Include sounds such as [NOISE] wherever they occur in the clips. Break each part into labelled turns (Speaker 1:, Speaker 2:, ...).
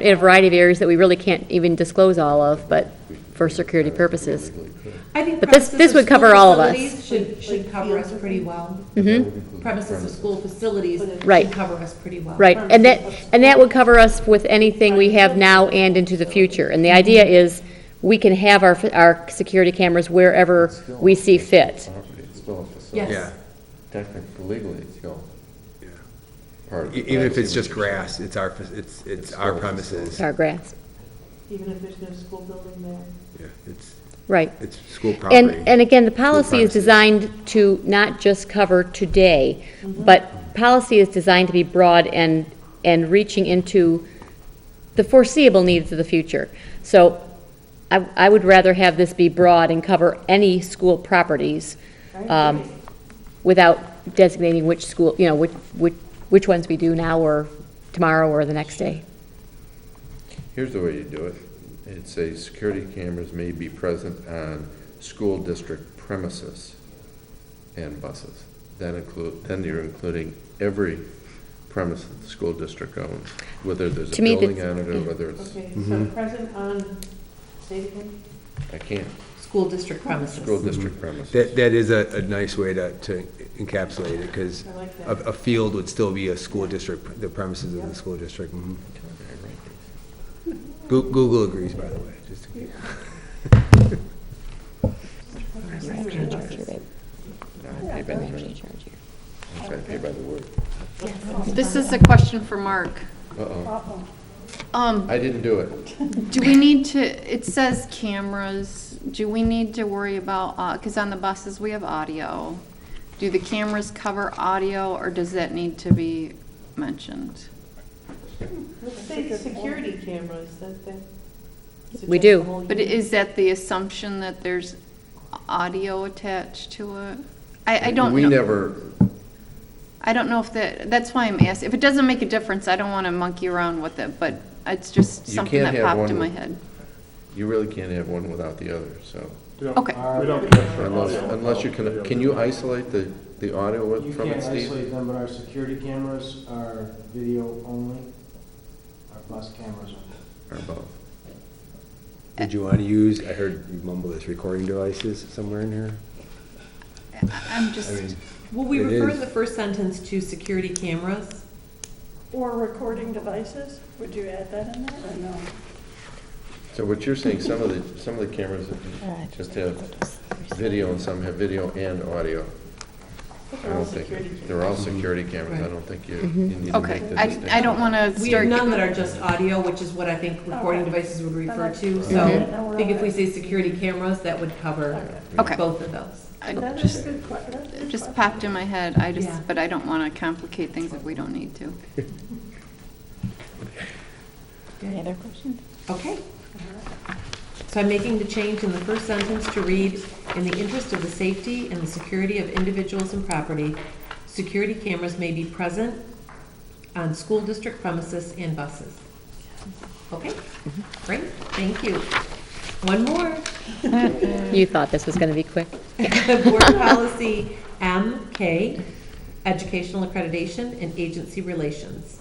Speaker 1: in a variety of areas that we really can't even disclose all of, but for security purposes.
Speaker 2: I think
Speaker 1: But this-
Speaker 2: premises
Speaker 1: this
Speaker 2: of
Speaker 1: would cover
Speaker 2: school
Speaker 1: all of us.
Speaker 2: facilities Should, should cover us pretty well.
Speaker 1: Mm-hmm.
Speaker 3: Hmm?
Speaker 2: Premises of school facilities
Speaker 1: Right.
Speaker 2: should cover us pretty well.
Speaker 1: Right, and that, and that would cover us with anything we have now and into the future. And the idea is, we can have our, our security cameras wherever we see fit.
Speaker 3: It's still a facility.
Speaker 2: Yes.
Speaker 3: Technically, legally, it's still
Speaker 4: Yeah.
Speaker 3: part of.
Speaker 4: E-
Speaker 3: the
Speaker 4: Even if it's
Speaker 3: privacy
Speaker 4: just
Speaker 3: restriction.
Speaker 4: grass, it's our, it's, it's
Speaker 3: It's
Speaker 4: our
Speaker 3: still-
Speaker 4: premises.
Speaker 1: It's our grasp,
Speaker 5: even if there's no school building there.
Speaker 4: Yeah, It's,
Speaker 1: right.
Speaker 4: it's school property.
Speaker 1: And, and again, the policy is
Speaker 4: privacy.
Speaker 1: designed to not just cover today, but policy is designed to be broad and, and reaching into the foreseeable needs of the future. So I, I would rather have this be broad and cover any school properties um, without designating which school, you know, which, which, which ones we do now or tomorrow or the next day.
Speaker 3: Here's the way you do it. It'd say, security cameras may be present on school district premises and buses. That include, then you're including every premise that the school district owns, whether there's
Speaker 1: To
Speaker 3: a
Speaker 1: me,
Speaker 3: building
Speaker 1: that's-
Speaker 3: on it or whether it's,
Speaker 5: Okay, so
Speaker 4: Mm-hmm.
Speaker 5: present on, say it again?
Speaker 3: I can't,
Speaker 2: School district premises.
Speaker 3: school district premises.
Speaker 4: That, that is a, a nice way to, to encapsulate it, because
Speaker 5: I like that.
Speaker 4: a, a field would still be a school district, the premises of the school district. mhm. Goo- Google agrees, by the way, just in case.
Speaker 3: I pay by the minute. I'm sorry, I pay by the word.
Speaker 6: This is a question for Mark.
Speaker 3: Uh-oh,
Speaker 6: Um,
Speaker 3: I didn't do it.
Speaker 6: do we need to, it says cameras, do we need to worry about, uh 'cause cause on the buses, we have audio. Do the cameras cover audio, or does that need to be mentioned?
Speaker 5: Let's say security cameras, that, that.
Speaker 1: We do.
Speaker 5: suggests a whole
Speaker 6: But
Speaker 5: unit.
Speaker 6: is that the assumption that there's audio attached to it? I, I don't know.
Speaker 3: We never,
Speaker 6: I don't know if that, that's why I'm asking. If it doesn't make a difference, I don't wanna monkey around with it, but it's just
Speaker 3: You
Speaker 6: something
Speaker 3: can't
Speaker 6: that
Speaker 3: have
Speaker 6: popped
Speaker 3: one
Speaker 6: in my
Speaker 3: with-
Speaker 6: head.
Speaker 3: you really can't have one without the other, so.
Speaker 7: We don't-
Speaker 6: Okay.
Speaker 7: We don't capture
Speaker 3: Unless,
Speaker 7: audio.
Speaker 3: unless you can, can you isolate the, the audio
Speaker 8: You
Speaker 3: with- from
Speaker 8: can't
Speaker 3: it, Steve?
Speaker 8: isolate them, but our security cameras are video only. Our bus cameras are.
Speaker 3: Or both?
Speaker 4: Did you want to use, I heard you mumble this, recording devices somewhere in here?
Speaker 6: I'm
Speaker 4: I mean,
Speaker 6: just,
Speaker 2: Will we
Speaker 4: It
Speaker 2: refer
Speaker 4: is.
Speaker 2: in the first sentence to security cameras?
Speaker 5: Or recording devices, would you add that in there, or no?
Speaker 3: So what you're saying, some of the, some of the cameras just have video and some have video and audio. I don't think, they're all security cameras, I don't think you, you need to make
Speaker 6: Mm-hmm. okay,
Speaker 3: the
Speaker 6: I, I don't wanna
Speaker 2: We have
Speaker 6: start.
Speaker 2: none that are just audio, which is what I think recording
Speaker 5: Okay.
Speaker 2: devices would refer
Speaker 5: Okay.
Speaker 2: to,
Speaker 5: Mhm.
Speaker 2: so I think if we say security cameras, that would cover
Speaker 6: Okay.
Speaker 2: both of those.
Speaker 6: I
Speaker 5: That is
Speaker 6: just-
Speaker 5: a good que- that's a
Speaker 6: It
Speaker 5: good
Speaker 6: just
Speaker 5: question.
Speaker 6: popped in my head, I
Speaker 2: Yeah.
Speaker 6: just, but I don't want to complicate things if we don't need to.
Speaker 2: Okay. So I'm making the change in the first sentence to read, "In the interest of the safety and the security of individuals and property, security cameras may be present on school district premises and buses." Okay, great, thank you. One more.
Speaker 1: You thought this was going to be quick.
Speaker 2: [LAUGHS] Board Policy MK, Educational Accreditation and Agency Relations.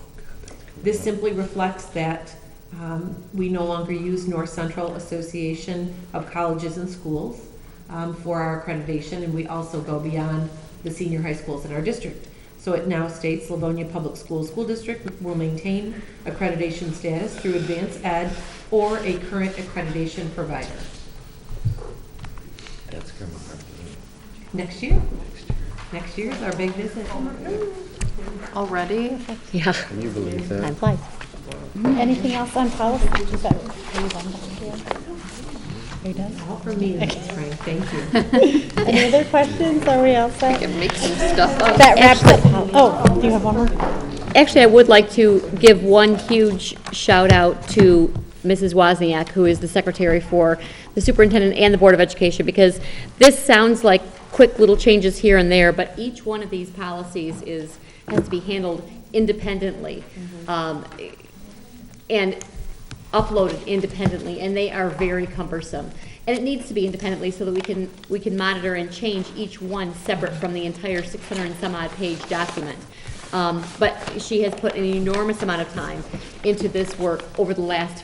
Speaker 2: This simply reflects that um, we no longer use North Central Association of Colleges and Schools um, for our accreditation, and we also go beyond the senior high schools in our district. So it now states Livonia Public Schools School District will maintain accreditation status through advanced ed or a current accreditation provider.
Speaker 3: That's coming up.
Speaker 2: Next year? Next year is our big visit.
Speaker 6: Already?
Speaker 1: Yeah,
Speaker 3: Can you believe
Speaker 1: time
Speaker 3: that?
Speaker 1: flies.
Speaker 9: Anything else on policy? Is that- are you done? Are you done?
Speaker 2: All for me, Mrs. Frank, thank you.
Speaker 9: Any other questions? Are we all set?
Speaker 6: Can make some stuff up.
Speaker 9: That wraps up, oh, do you have one more?
Speaker 1: Actually, I would like to give one huge shout out to Mrs. Wozniak, who is the secretary for the superintendent and the Board of Education, because this sounds like quick little changes here and there, but each one of these policies is, has to be handled independently. Um, and uploaded independently, and they are very cumbersome. And it needs to be independently so that we can, we can monitor and change each one separate from the entire six hundred and some odd page document. Um, But she has put an enormous amount of time into this work over the last